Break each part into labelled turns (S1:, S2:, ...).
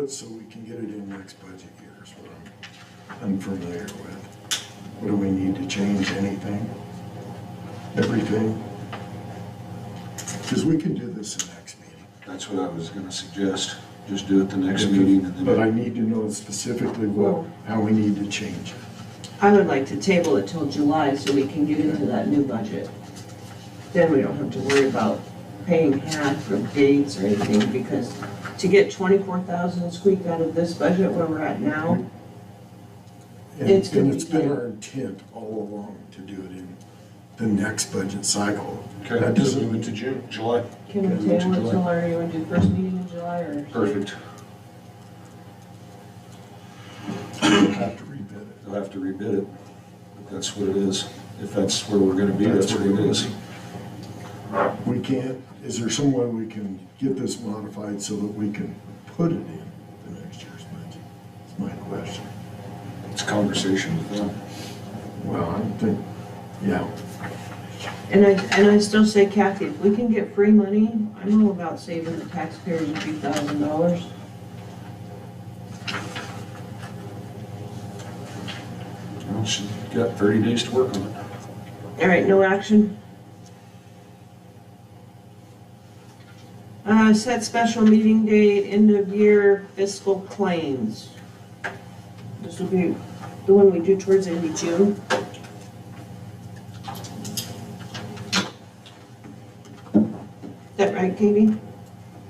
S1: it so we can get it in next budget year is what I'm unfamiliar with. What do we need to change, anything? Everything? Because we can do this in next meeting.
S2: That's what I was gonna suggest, just do it the next meeting and
S1: But I
S2: then.
S1: need to know specifically what, how we need to change it.
S3: I would like to table it till July so we can get into that new budget. Then we don't have to worry about paying half for dates or anything because to get twenty-four thousand squeaked out of this budget where we're at now,
S1: And-
S3: It's gonna
S1: And it's
S3: be
S1: been
S3: tight.
S1: our intent all along to do it in the next budget cycle.
S2: Okay,
S1: That
S2: just move it
S1: doesn't,
S2: to June, July,
S3: can we
S2: Okay,
S3: table
S2: July.
S3: it till, are you gonna do first meeting in July or?
S2: perfect.
S1: we'll have to rebid it.
S2: They'll have to rebid it, but that's what it is. If that's where we're gonna be, that's what it is.
S1: We can't, is there some way we can get this modified so that we can put it in the next year's budget? That's my question.
S2: It's a conversation with them.
S1: Well, I think, yeah,
S3: And I, and I still say Kathy, if we can get free money, I'm all about saving the taxpayers a few thousand dollars.
S2: Well, she's got thirty days to work on it.
S3: All right, no action. Uh, set special meeting date, end of year fiscal claims. This will be the one we do towards the end of June. That right, Katie?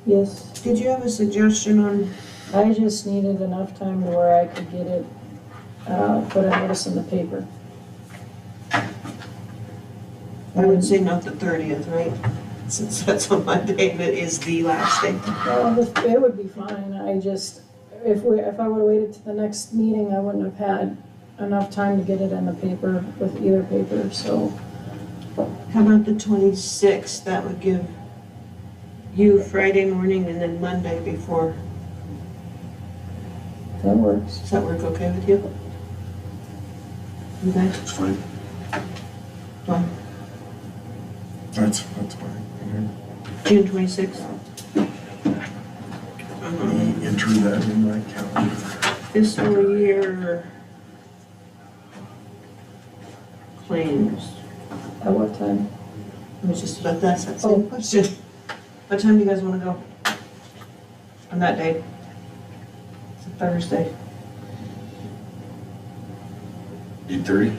S4: Yes,
S3: Did you have a suggestion on,
S4: I just needed enough time to where I could get it, uh, put a notice in the paper.
S3: I would say not the thirtieth, right? Since that's on Monday, and it is the last day.
S4: Well, the- it would be fine, I just, if we, if I would've waited to the next meeting, I wouldn't have had enough time to get it in the paper with either paper, so.
S3: How about the twenty-sixth? That would give you Friday morning and then Monday before.
S4: That works.
S3: Does that work okay with you? Okay,
S2: It's fine.
S3: well,
S1: that's, that's fine.
S3: June twenty-sixth.
S1: Let me Enter that in my calendar.
S3: Fiscal year claims.
S4: At what time?
S3: I was just about to ask that
S4: Oh.
S3: same question. What time do you guys wanna go? On that day? It's a Thursday.
S2: Eight thirty?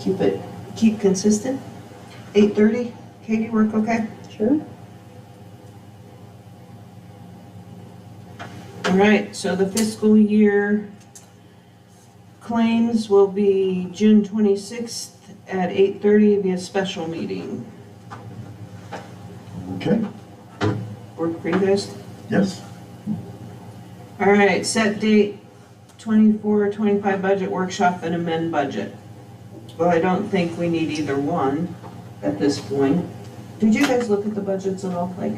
S3: Keep it, keep consistent? Eight thirty? Katie, work okay?
S4: Sure.
S3: All right, so the fiscal year claims will be June twenty-sixth at eight-thirty via special meeting.
S1: Okay,
S3: Work for you guys?
S1: yes,
S3: All right, set date 24-25 budget workshop and amend budget. Well, I don't think we need either one at this point. Did you guys look at the budgets at all, like,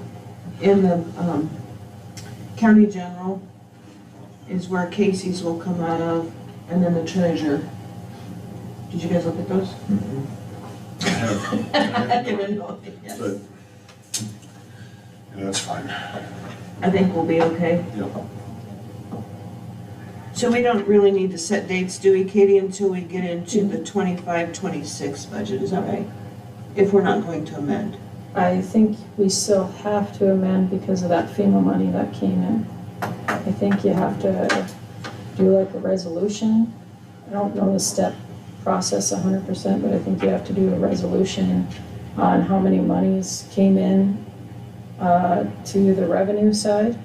S3: in the, um, county general is where Casey's will come out of, and then the treasurer. Did you guys look at those?
S2: I have,
S3: I didn't know. Yes.
S2: but- Yeah, that's fine.
S3: I think we'll be okay.
S2: Yep.
S3: So we don't really need to set dates, do we, Katie, until we get into the 25-26 budget, is that right? If we're not going to amend.
S4: I think we still have to amend because of that FEMA money that came in. I think you have to do like a resolution. I don't know the step process hundred percent, but I think you have to do a resolution on how many monies came in uh, to the revenue side.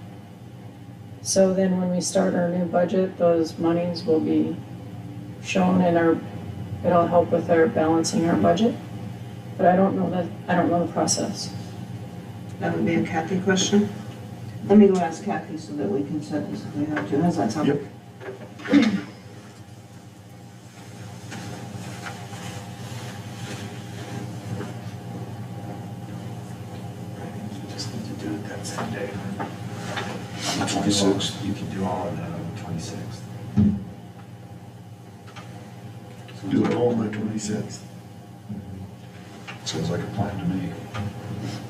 S4: So then when we start our new budget, those monies will be shown in our, it'll help with our balancing our budget. But I don't know that, I don't know the process.
S3: That would be a Kathy question. Let me go ask Kathy so that we can set this if we have to, how's that sound?
S1: Yep.
S5: Just need to do it that same day.
S2: The twenty-sixth.
S5: You can do all of that on the twenty-sixth.
S1: do it all on the twenty-sixth.
S2: Sounds like a plan to me.